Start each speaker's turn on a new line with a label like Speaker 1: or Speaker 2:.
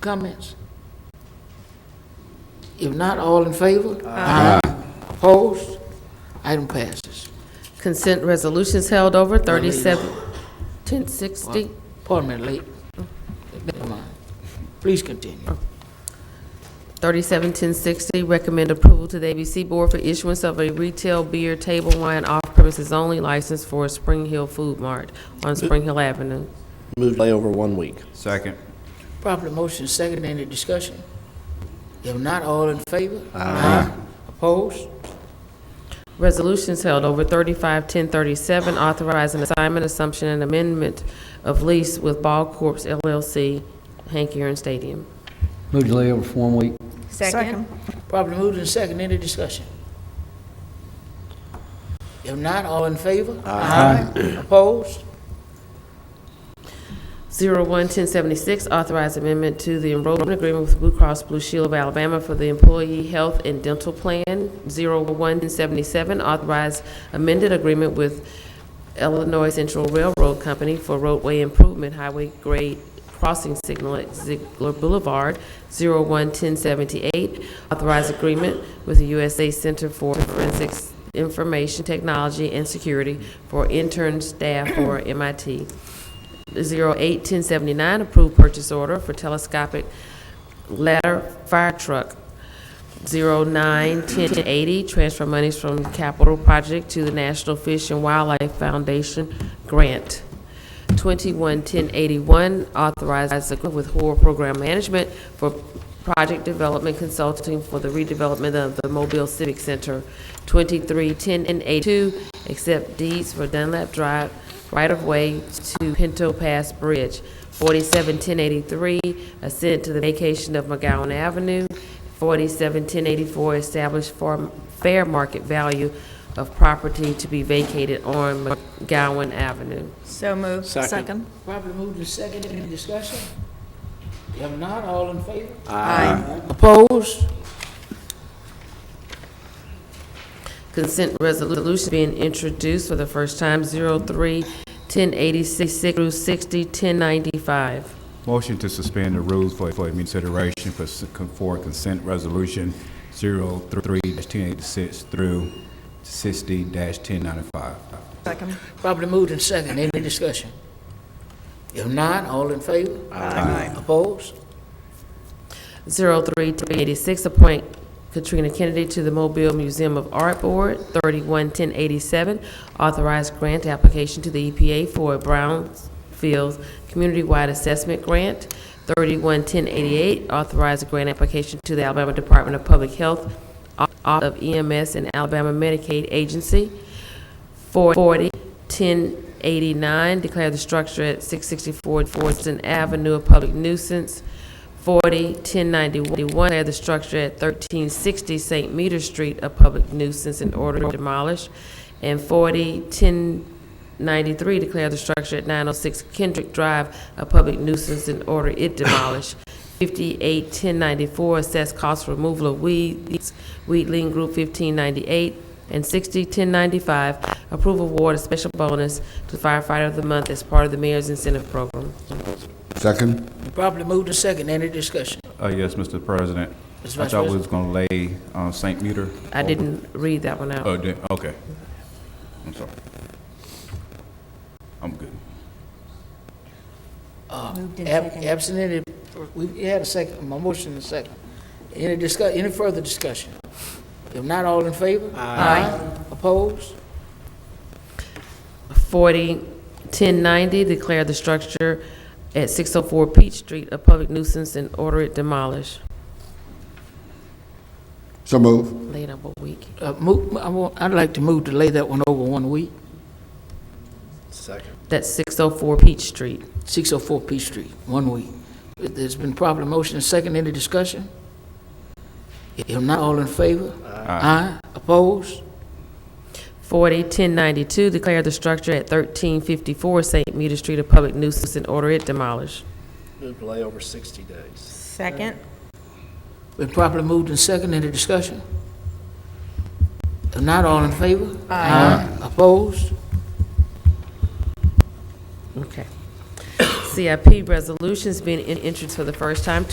Speaker 1: comments? If not, all in favor? Aye. Opposed? Item passes.
Speaker 2: Consent resolutions held over, 37, 1060.
Speaker 1: Pardon me, late. Never mind. Please continue.
Speaker 2: 371060, recommend approval to the ABC Board for issuance of a retail beer table wine off-premises only license for Spring Hill Food Mart on Spring Hill Avenue.
Speaker 3: Move delay over one week.
Speaker 4: Second.
Speaker 1: Properly motion second, any discussion? If not, all in favor? Aye. Opposed?
Speaker 2: Resolutions held over 351037, authorizing assignment, assumption, and amendment of lease with Ball Corp. LLC, Hank Aaron Stadium.
Speaker 5: Move delay over for one week.
Speaker 6: Second.
Speaker 1: Properly moved in second, any discussion? If not, all in favor? Aye. Opposed?
Speaker 2: 011076, authorized amendment to the enrollment agreement with Blue Cross Blue Shield of Alabama for the Employee Health and Dental Plan. 011077, authorized amended agreement with Illinois Central Railroad Company for roadway improvement highway grade crossing signal at Ziegler Boulevard. 011078, authorized agreement with the USA Center for Forensics Information Technology and Security for intern staff for MIT. 08-1079, approved purchase order for telescopic ladder fire truck. 09-1080, transfer monies from capital project to the National Fish and Wildlife Foundation grant. 21-1081, authorized agreement with Hoare Program Management for project development consulting for the redevelopment of the Mobile Civic Center. 23-1082, accept deeds for Dunlap Drive right-of-way to Pinto Pass Bridge. 47-1083, assent to the vacation of McGowan Avenue. 47-1084, establish for- fair market value of property to be vacated on McGowan Avenue.
Speaker 6: So moved. Second.
Speaker 1: Properly moved in second, any discussion? If not, all in favor?
Speaker 6: Aye.
Speaker 1: Opposed?
Speaker 2: Consent resolution being introduced for the first time, 03-1086 through 60-1095.
Speaker 4: Motion to suspend the rules for, for consideration for, s- con- for consent resolution 03-1086 through 60-1095.
Speaker 6: Second.
Speaker 1: Properly moved in second, any discussion? If not, all in favor? Aye. Opposed?
Speaker 2: 03386, appoint Katrina Kennedy to the Mobile Museum of Art Board. 311087, authorized grant application to the EPA for a Brownfield Community-Wide Assessment Grant. 311088, authorized grant application to the Alabama Department of Public Health, Office of EMS, and Alabama Medicaid Agency. 40, 1089, declare the structure at 664 Forston Avenue a public nuisance. 40, 1091, declare the structure at 1360 St. Meter Street a public nuisance and order to demolish. And 40, 1093, declare the structure at 906 Kendrick Drive a public nuisance and order it demolished. 58, 1094, assess cost for removal of weeds, Wheatland Group 1598, and 601095, approve award of special bonus to firefighter of the month as part of the mayor's incentive program.
Speaker 7: Second?
Speaker 1: Properly moved in second, any discussion?
Speaker 4: Uh, yes, Mr. President.
Speaker 1: Mr.
Speaker 4: I
Speaker 1: Vice
Speaker 4: thought we
Speaker 1: President.
Speaker 4: was gonna lay, uh, St. Meter.
Speaker 2: I didn't read that one out.
Speaker 4: Oh, did, okay. I'm sorry. I'm good.
Speaker 6: Moved
Speaker 1: Uh, Ab- Absent any, we we had a second, my motion is second. Any discuss, any further discussion? If not, all in favor? Aye. Opposed?
Speaker 2: 401090, declare the structure at 604 Peach Street a public nuisance and order it demolished.
Speaker 7: So move.
Speaker 2: Later, but week.
Speaker 1: Uh, move, I want, I'd like to move to lay that one over one week,
Speaker 3: Second.
Speaker 2: That's 604 Peach Street.
Speaker 1: six oh four Peach Street, one week. It- There's been properly motion in second, any discussion? If not, all in favor? Aye. Opposed?
Speaker 2: 401092, declare the structure at 1354 St. Meter Street a public nuisance and order it demolished.
Speaker 3: Move delay over 60 days.
Speaker 6: Second.
Speaker 1: Been properly moved in second, any discussion? If not, all in favor? Aye. Opposed?
Speaker 2: Okay. CIP resolutions being in- introduced for the first time,